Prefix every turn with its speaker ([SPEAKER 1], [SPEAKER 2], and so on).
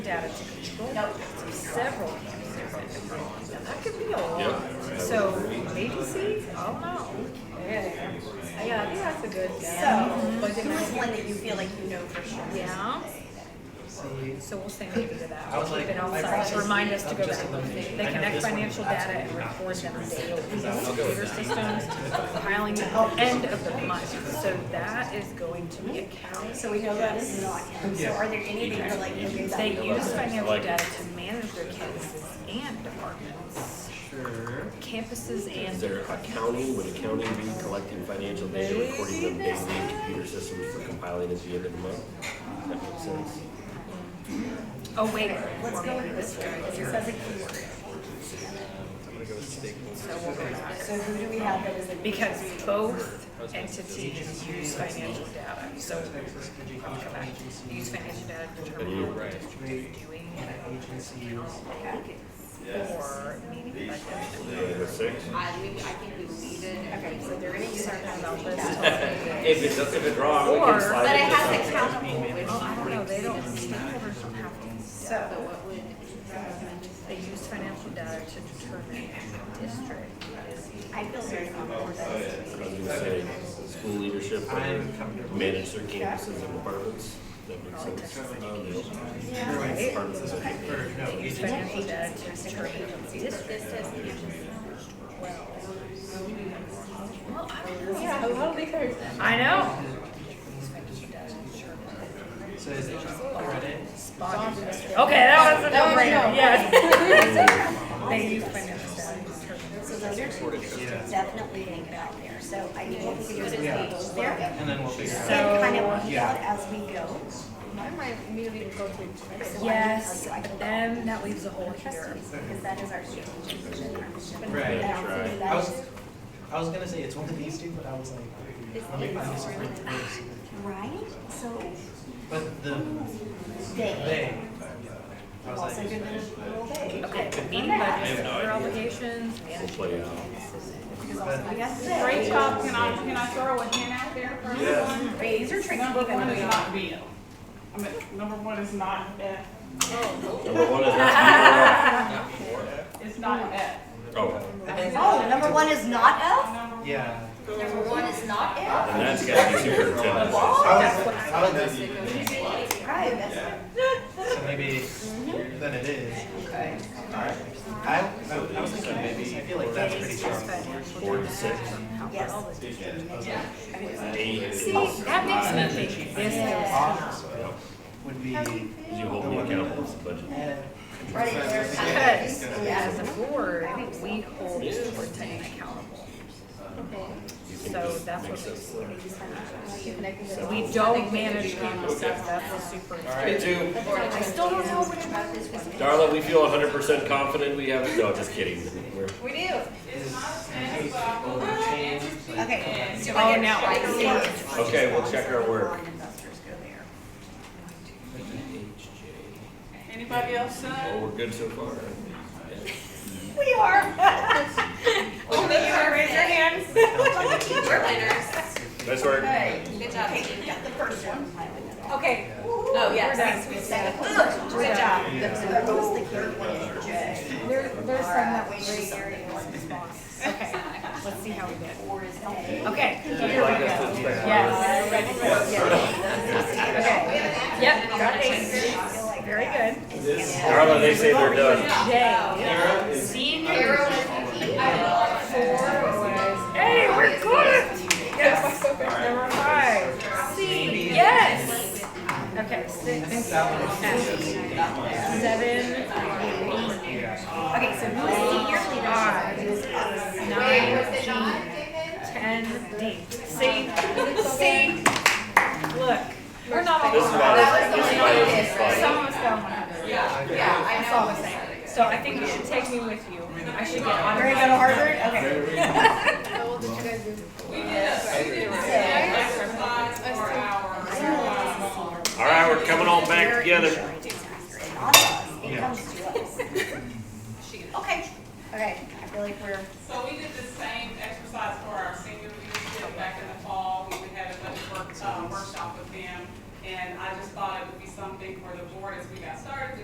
[SPEAKER 1] out of control. Several campuses. Now, That could be a lot. So agency, I don't know. Yeah, yeah, I think that's a good
[SPEAKER 2] So,
[SPEAKER 1] guess.
[SPEAKER 2] who is one that you feel like you know for sure?
[SPEAKER 1] Yeah. So we'll say maybe to that. We'll
[SPEAKER 3] was
[SPEAKER 1] keep
[SPEAKER 3] like,
[SPEAKER 1] it
[SPEAKER 3] I
[SPEAKER 1] outside
[SPEAKER 3] processed
[SPEAKER 1] to remind
[SPEAKER 3] it
[SPEAKER 1] us to
[SPEAKER 3] up
[SPEAKER 1] go
[SPEAKER 3] just
[SPEAKER 1] back.
[SPEAKER 3] a little bit.
[SPEAKER 1] They
[SPEAKER 3] I know
[SPEAKER 1] connect
[SPEAKER 3] this one
[SPEAKER 1] financial data and "Oh, record them daily. Computer systems compiling the end of the month. So that is going to be accounts.
[SPEAKER 2] So we know that is not him. So are there any that you're like, okay, that
[SPEAKER 1] They use financial data to manage their campuses and departments.
[SPEAKER 3] Sure.
[SPEAKER 1] Campuses and
[SPEAKER 4] Is there accounting, would accounting be collecting financial data, recording them
[SPEAKER 1] Maybe
[SPEAKER 4] daily in computer systems for compiling at the end of the month? Does that make sense?
[SPEAKER 1] Oh, wait.
[SPEAKER 2] Let's go with this one, because it says a keyword.
[SPEAKER 1] So we'll go back.
[SPEAKER 2] So who do we have that is a?
[SPEAKER 1] Because both entities use financial data, so I'll go back. Use financial data to determine how the district is doing.
[SPEAKER 3] Agencies.
[SPEAKER 1] Or meeting budget.
[SPEAKER 4] Number six?
[SPEAKER 5] I, we, I think we leave it.
[SPEAKER 2] Okay, so there any certain amount of
[SPEAKER 4] If it's, if it's wrong, we
[SPEAKER 1] Or-
[SPEAKER 4] can slide
[SPEAKER 5] But it
[SPEAKER 4] it to
[SPEAKER 5] has
[SPEAKER 4] something.
[SPEAKER 5] accountable, which,
[SPEAKER 1] Oh, I don't know, they don't, stakeholders don't have to.
[SPEAKER 5] but
[SPEAKER 1] So
[SPEAKER 5] what would,
[SPEAKER 1] they use financial data to determine how the district is.
[SPEAKER 2] I feel very comfortable.
[SPEAKER 4] I was gonna say, school leadership,
[SPEAKER 3] I'm comfortable.
[SPEAKER 4] manage their campuses and departments, that makes sense. Um, Departments, I think.
[SPEAKER 3] Or no,
[SPEAKER 1] They use
[SPEAKER 3] agencies.
[SPEAKER 1] financial data to determine how the district. Well, I don't know.
[SPEAKER 2] Yeah, well, because.
[SPEAKER 1] I know.
[SPEAKER 3] So is it credit?
[SPEAKER 1] Okay, that was a
[SPEAKER 2] That
[SPEAKER 1] no
[SPEAKER 2] was
[SPEAKER 1] brainer,
[SPEAKER 2] no.
[SPEAKER 1] yes. They use financial data.
[SPEAKER 2] So those are two we should definitely think about there. So I think what we could do is leave those there
[SPEAKER 3] And then we'll figure out.
[SPEAKER 2] and kind of weed out
[SPEAKER 3] Yeah.
[SPEAKER 2] as we go.
[SPEAKER 5] why am I immediately go to?
[SPEAKER 1] Yes, but then that leaves a hole here.
[SPEAKER 2] Because that is our strategic vision, our mission.
[SPEAKER 3] Right.
[SPEAKER 2] And I don't think
[SPEAKER 3] I
[SPEAKER 2] that
[SPEAKER 3] was,
[SPEAKER 2] is-
[SPEAKER 3] I was gonna say it's one of these two, but I was like, let me find this different thing.
[SPEAKER 2] Right? So
[SPEAKER 3] But the,
[SPEAKER 2] they,
[SPEAKER 3] they, I was
[SPEAKER 2] also
[SPEAKER 3] like,
[SPEAKER 2] good little they.
[SPEAKER 1] Okay, meeting budgets, other obligations, management.
[SPEAKER 4] Play out.
[SPEAKER 2] I guess they.
[SPEAKER 6] Great job, can I, can I throw a hand out there for everyone?
[SPEAKER 2] Wait, these are tricky.
[SPEAKER 6] Number one is
[SPEAKER 2] even
[SPEAKER 6] not B. I mean, number one is not F,
[SPEAKER 4] Number one is not
[SPEAKER 6] it's not F.
[SPEAKER 4] Oh,
[SPEAKER 2] though. Oh, number one is not F?
[SPEAKER 6] Number,
[SPEAKER 3] yeah.
[SPEAKER 2] Number one is not F?
[SPEAKER 4] and that's gotta be superintendent.
[SPEAKER 3] I was, I was,
[SPEAKER 2] Right, that's what
[SPEAKER 3] so maybe,
[SPEAKER 2] Mm-hmm.
[SPEAKER 3] then it is. I, I I was thinking maybe, I feel like that's pretty strong.
[SPEAKER 4] Four to six. Eight.
[SPEAKER 1] See, that makes me think, yes, there
[SPEAKER 3] Office would be, yeah,
[SPEAKER 4] You hold me accountable to the budget.
[SPEAKER 2] Right there.
[SPEAKER 1] was, because as a board, we hold the superintendent accountable. So that's what makes me think. We don't manage campuses, that's the superintendent. I still don't know which one is.
[SPEAKER 4] Darla, we feel hundred percent confident we have, no, just kidding. We're-
[SPEAKER 2] we do.
[SPEAKER 6] it's not F, so I will not add it to
[SPEAKER 2] Okay.
[SPEAKER 6] N.
[SPEAKER 2] so
[SPEAKER 1] Oh,
[SPEAKER 2] I
[SPEAKER 1] now I
[SPEAKER 2] get-
[SPEAKER 1] see.
[SPEAKER 4] Okay, we'll check our work.
[SPEAKER 2] Investors go there.
[SPEAKER 6] Anybody else,
[SPEAKER 4] Well,
[SPEAKER 6] son?
[SPEAKER 4] oh, we're good so far.
[SPEAKER 2] We are.
[SPEAKER 6] Only you raise your hands.
[SPEAKER 5] We're winners.
[SPEAKER 4] Nice work.
[SPEAKER 5] Good job.
[SPEAKER 2] Okay, we got the first one.
[SPEAKER 5] Okay. Oh, yes.
[SPEAKER 2] We're done. Ugh, Good job. That was the key one.
[SPEAKER 1] There, there's some that we gray area Okay, let's see how we did. Okay, here we go. Yes. Okay. Yep, got an ace. Very good.
[SPEAKER 4] Darla, they say they're done.
[SPEAKER 1] Yay. Senior. Hey, we're good. Yes. Number five. C, yes. Okay, six. Seven. eight,
[SPEAKER 2] Okay, so who is the year leader?
[SPEAKER 1] Five, nine, ten, D. See, see, look, we're not all.
[SPEAKER 4] This is about
[SPEAKER 1] Some
[SPEAKER 4] as, this is about as
[SPEAKER 1] of us got one. Yeah, yeah, I know. That's all I'm saying. So I think you should take me with you. I should get on.
[SPEAKER 2] We're gonna go to Harvard? Okay.
[SPEAKER 4] All right, we're coming all back together.
[SPEAKER 6] uh,